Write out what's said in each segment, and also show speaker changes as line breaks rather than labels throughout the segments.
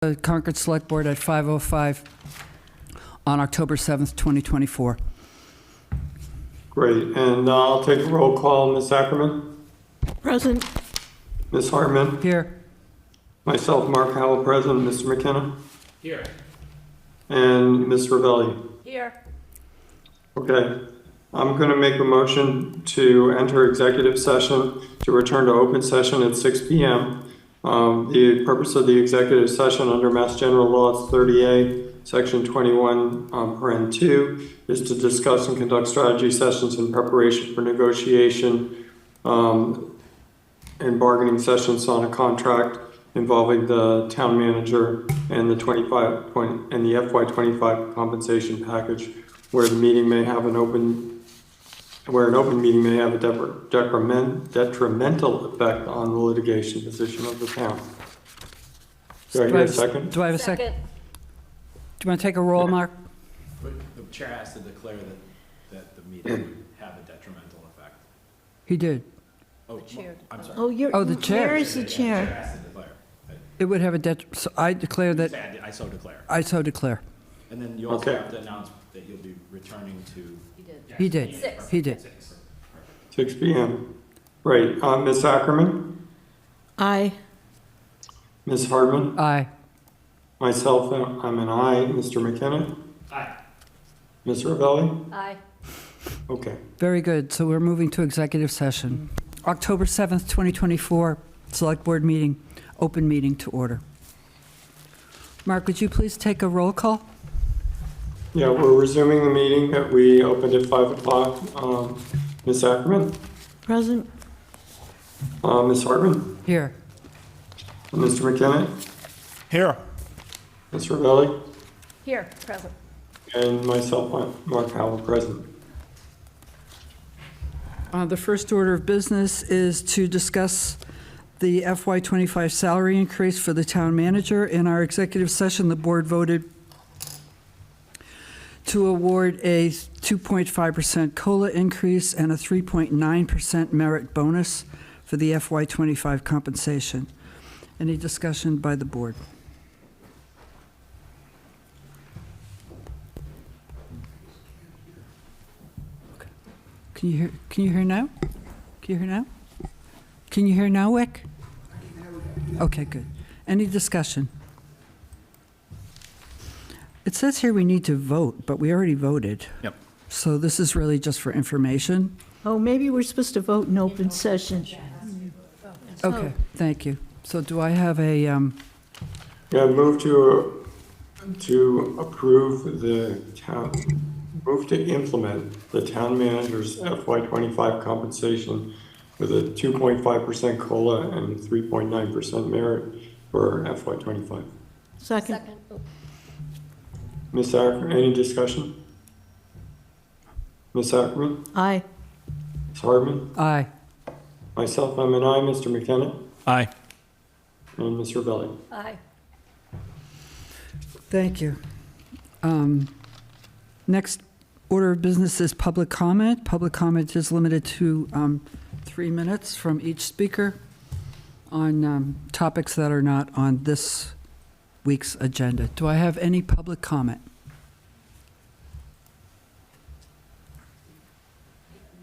the Concord Select Board at 5:05 on October 7th, 2024.
Great, and uh, I'll take a roll call. Ms. Ackerman?
Present.
Ms. Hartman?
Here,
Myself, Mark Howell, present. Mr. McKenna?
Here.
And Ms. Ravelli?
Here.
Okay, I'm going to make a motion to enter executive session, to return to open session at 6 PM. Um, The purpose of the executive session under Mass General Laws 30A, Section 21, um, paren 2, is to discuss and conduct strategy sessions in preparation for negotiation um, and bargaining sessions on a contract involving the town manager and the 25, point- and the FY 25 compensation package, where the meeting may have an open, where an open meeting may have a depre- detriment, detrimental effect on the litigation position of the town. Do I hear a second?
do I have a second? Do you want to take a roll, Mark?
But the chair has to declare that, that the meeting would have a detrimental effect.
He did.
Oh, I'm sorry.
Oh, you're.
Oh, the chair.
Where is the chair?
Chair has to declare.
It would have a det, so I declare that,
Sad, I so declare.
I so declare.
And then you also
Okay.
have to announce that you'll be returning to.
He did. He did.
Six.
6 PM. Right, uh, Ms. Ackerman,
Aye.
Ms. Hardman,
Aye.
myself, uh, I'm an aye. Mr. McKenna,
Aye.
Ms. Ravelli?
Aye.
Okay.
Very good. So we're moving to executive session. October 7th, 2024, Select Board meeting, open meeting to order. Mark, would you please take a roll call?
Yeah, we're resuming the meeting that we opened at 5 o'clock. Um, Ms. Ackerman,
Present.
uh, Ms. Hartman,
Here.
Mr. McKenna,
Here.
Ms. Ravelli,
Here, present.
and myself, Mark Howell, present.
Uh, The first order of business is to discuss the FY25 salary increase for the town manager. In our executive session, the board voted to award a 2.5% COLA increase and a 3.9% merit bonus for the FY25 compensation. Any discussion by the board? Can you hear, can you hear now? Can you hear now? Can you hear now, Wick? Okay, good. Any discussion? It says here we need to vote, but we already voted.
Yep.
So this is really just for information?
Oh, maybe we're supposed to vote in open session.
Okay, thank you. So do I have a, um,
Yeah, move to, to approve the town, move to implement the town manager's FY twenty-five compensation with a two point five percent COLA and three point nine percent merit for FY twenty-five.
Second.
Ms. Ackerman, any discussion? Ms. Ackerman,
Aye.
Ms. Hardman,
aye,
myself, I'm an aye, Mr. McKenna,
Aye.
and Ms. Rebelli.
Aye.
thank you. Um, Next order of business is public comment. Public comment is limited to um, three minutes from each speaker on um, topics that are not on this week's agenda. Do I have any public comment?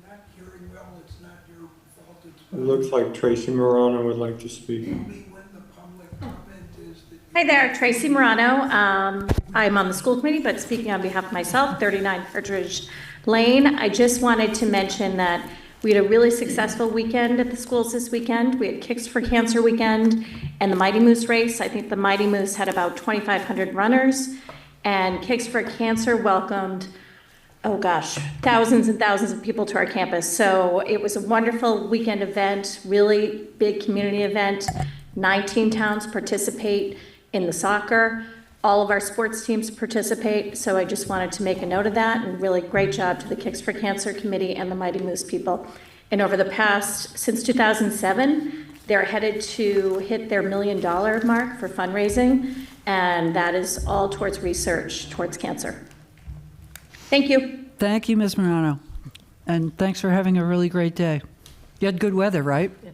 not hearing well, it's not your fault, it's
It looks like Tracy Morano would like to speak.
only when the public comment is that
Hi there, Tracy Morano. Um, I'm on the school committee, but speaking on behalf of myself, 39 Partridge Lane. I just wanted to mention that we had a really successful weekend at the schools this weekend. We had Kicks for Cancer Weekend and the Mighty Moose Race. I think the Mighty Moose had about 2,500 runners, and Kicks for Cancer welcomed oh gosh, thousands and thousands of people to our campus. So it was a wonderful weekend event, really big community event. 19 towns participate in the soccer. All of our sports teams participate. So I just wanted to make a note of that and really great job to the Kicks for Cancer Committee and the Mighty Moose people. And over the past, since 2007, they're headed to hit their million dollar mark for fundraising. And that is all towards research towards cancer. Thank you.
Thank you, Ms. Morano, and thanks for having a really great day. You had good weather, right?